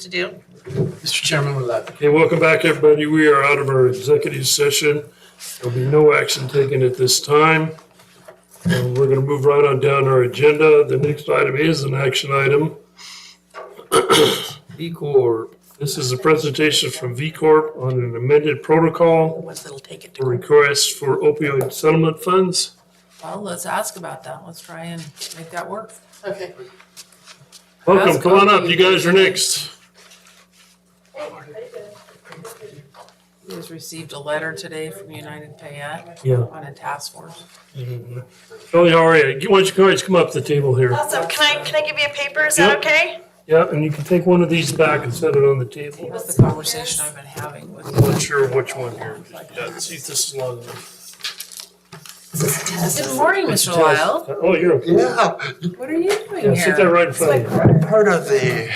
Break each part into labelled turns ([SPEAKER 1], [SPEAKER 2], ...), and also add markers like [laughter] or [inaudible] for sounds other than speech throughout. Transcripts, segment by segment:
[SPEAKER 1] to do?
[SPEAKER 2] Mr. Chairman, with that.
[SPEAKER 3] Okay, welcome back, everybody. We are out of our executive session. There'll be no action taken at this time. And we're gonna move right on down our agenda. The next item is an action item. V Corp. This is a presentation from V Corp on an amended
[SPEAKER 1] The
[SPEAKER 3] protocol
[SPEAKER 1] ones that'll take it to
[SPEAKER 3] for requests for opioid settlement funds.
[SPEAKER 4] Well, let's ask about that. Let's try and make that work.
[SPEAKER 1] Okay.
[SPEAKER 3] Welcome, come on up. You guys are next.
[SPEAKER 4] We just received a letter today from United Payette
[SPEAKER 3] Yeah.
[SPEAKER 4] on a task force.
[SPEAKER 3] Kelly, how are you? Why don't you guys come up to the table here?
[SPEAKER 1] Awesome, can I, can I give you a paper, is
[SPEAKER 3] Yep.
[SPEAKER 1] that okay?
[SPEAKER 3] Yeah, and you can take one of these back and set it on the table.
[SPEAKER 4] That's the conversation I've been having with
[SPEAKER 3] I'm not sure which one here. Yeah, see, if this is long.
[SPEAKER 4] Good morning, Mr. Lyle.
[SPEAKER 3] Oh, you're okay.
[SPEAKER 5] Yeah,
[SPEAKER 4] What are you doing
[SPEAKER 3] Yeah, sit there
[SPEAKER 4] here?
[SPEAKER 3] right in front of you.
[SPEAKER 5] part of the,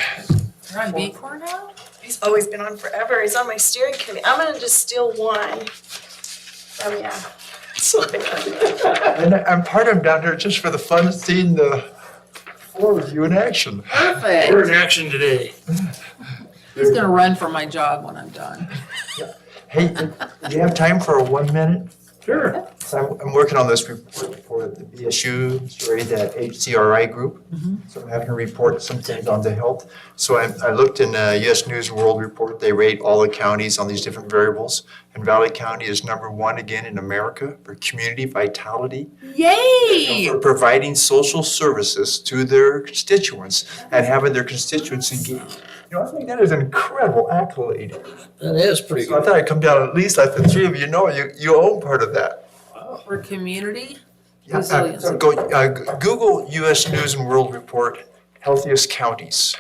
[SPEAKER 4] You're on B Corps now?
[SPEAKER 1] He's always been on forever, he's on my steering committee, I'm gonna just steal one. Oh, yeah. It's like-
[SPEAKER 5] and I'm part of down here just for the fun of seeing the four of you in action.
[SPEAKER 4] Perfect.
[SPEAKER 3] We're in action today.
[SPEAKER 4] He's gonna run for my job when I'm done.
[SPEAKER 5] Hey, do you have time for one minute?
[SPEAKER 3] Sure.
[SPEAKER 5] So I'm, I'm working on this report for the BSU, sorry, that HCRI group. So I'm having to report some things on the health. So I, I looked in a US News and World Report, they rate all the counties on these different variables. And Valley County is number one again in America for community vitality.
[SPEAKER 4] Yay!
[SPEAKER 5] for providing social services to their constituents and having their constituents engaged. You know, I think that is an incredible accolade.
[SPEAKER 2] That is pretty
[SPEAKER 5] So I thought I'd come down, at least like the three of you know, you, you own part of that.
[SPEAKER 4] For community?
[SPEAKER 5] Yeah, uh,
[SPEAKER 4] Resilience.
[SPEAKER 5] Go, uh, Google US News and World Report, healthiest counties.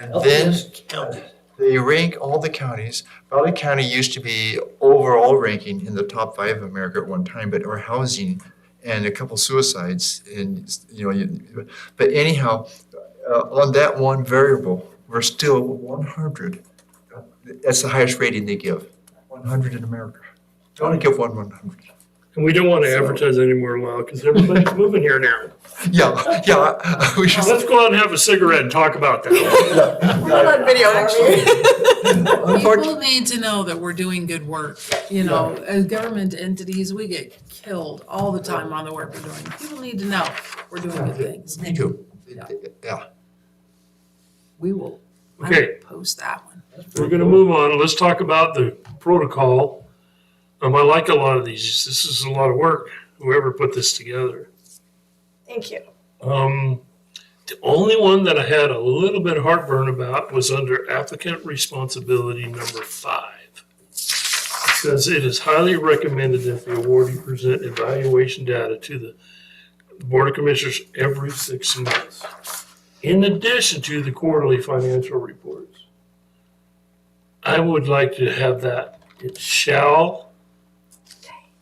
[SPEAKER 5] And then they rank all the counties. Valley County used to be overall ranking in the top five of America at one time, but our housing and a couple suicides and, you know, you- but anyhow, uh, on that one variable, we're still one hundred. That's the highest rating they give, one hundred in America. They only give one one hundred.
[SPEAKER 3] And we don't want to advertise anymore, Lyle, because everybody's moving here now.
[SPEAKER 5] Yeah, yeah, we should.
[SPEAKER 3] Let's go out and have a cigarette and talk about that.
[SPEAKER 1] video,
[SPEAKER 4] People need to know that we're doing good work, you know, as government entities, we get killed all the time on the work we're doing. People need to know we're doing good things.
[SPEAKER 5] Me too. Yeah.
[SPEAKER 4] We will, I will
[SPEAKER 3] Okay.
[SPEAKER 4] post that one.
[SPEAKER 3] We're going to move on. Let's talk about the protocol. Um, I like a lot of these. This is a lot of work, whoever put this together.
[SPEAKER 1] [laughs] Thank you.
[SPEAKER 3] Um, the only one that I had a little bit of heartburn about was under applicant responsibility number five. Says it is highly recommended that the awardee present evaluation data to the Board of Commissioners every six months. In addition to the quarterly financial reports. I would like to have that, it shall,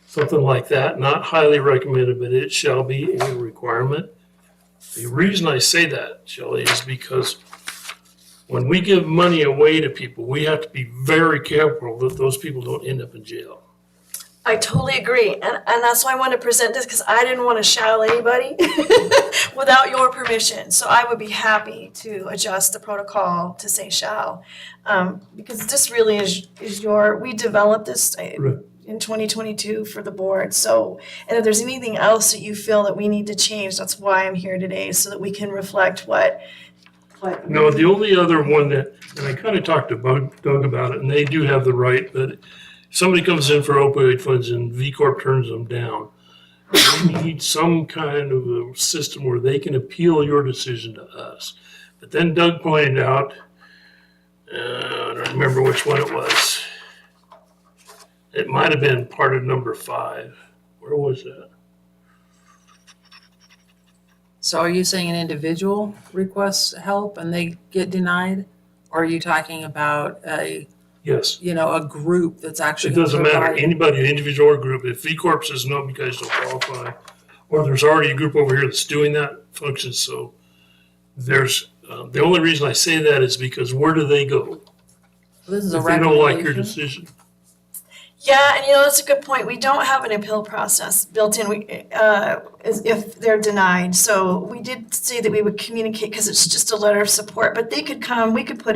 [SPEAKER 3] something like that, not highly recommended, but it shall be a requirement. The reason I say that, Shelley, is because when we give money away to people, we have to be very careful that those people don't end up in jail.
[SPEAKER 1] I totally agree, and, and that's why I wanted to present this, because I didn't want to shout anybody [laughs] without your permission, so I would be happy to adjust the protocol to say shall. Um, because this really is, is your, we developed this uh,
[SPEAKER 3] Right.
[SPEAKER 1] in twenty twenty-two for the board, so, and if there's anything else that you feel that we need to change, that's why I'm here today, so that we can reflect what, what.
[SPEAKER 3] No, the only other one that, and I kind of talked to Bug- Doug about it, and they do have the right, but somebody comes in for opioid funds and V Corp turns them down. We need some kind of a system where they can appeal your decision to us. But then Doug pointed out, uh, I don't remember which one it was. It might have been part of number five. Where was that?
[SPEAKER 4] So are you saying an individual requests help and they get denied? Or are you talking about a,
[SPEAKER 3] Yes.
[SPEAKER 4] you know, a group that's
[SPEAKER 3] It
[SPEAKER 4] actually?
[SPEAKER 3] doesn't matter,
[SPEAKER 4] providing-
[SPEAKER 3] anybody, individual or group, if V Corp says no, because you don't qualify, or there's already a group over here that's doing that function, so there's, uh, the only reason I say that is because where do they go?
[SPEAKER 4] This is a
[SPEAKER 3] If they don't like your
[SPEAKER 4] recommendation.
[SPEAKER 3] decision,
[SPEAKER 1] Yeah, and you know, that's a good point. We don't have an appeal process built in, we, uh, is- if they're denied. So we did say that we would communicate, because it's just a letter of support, but they could come, we could put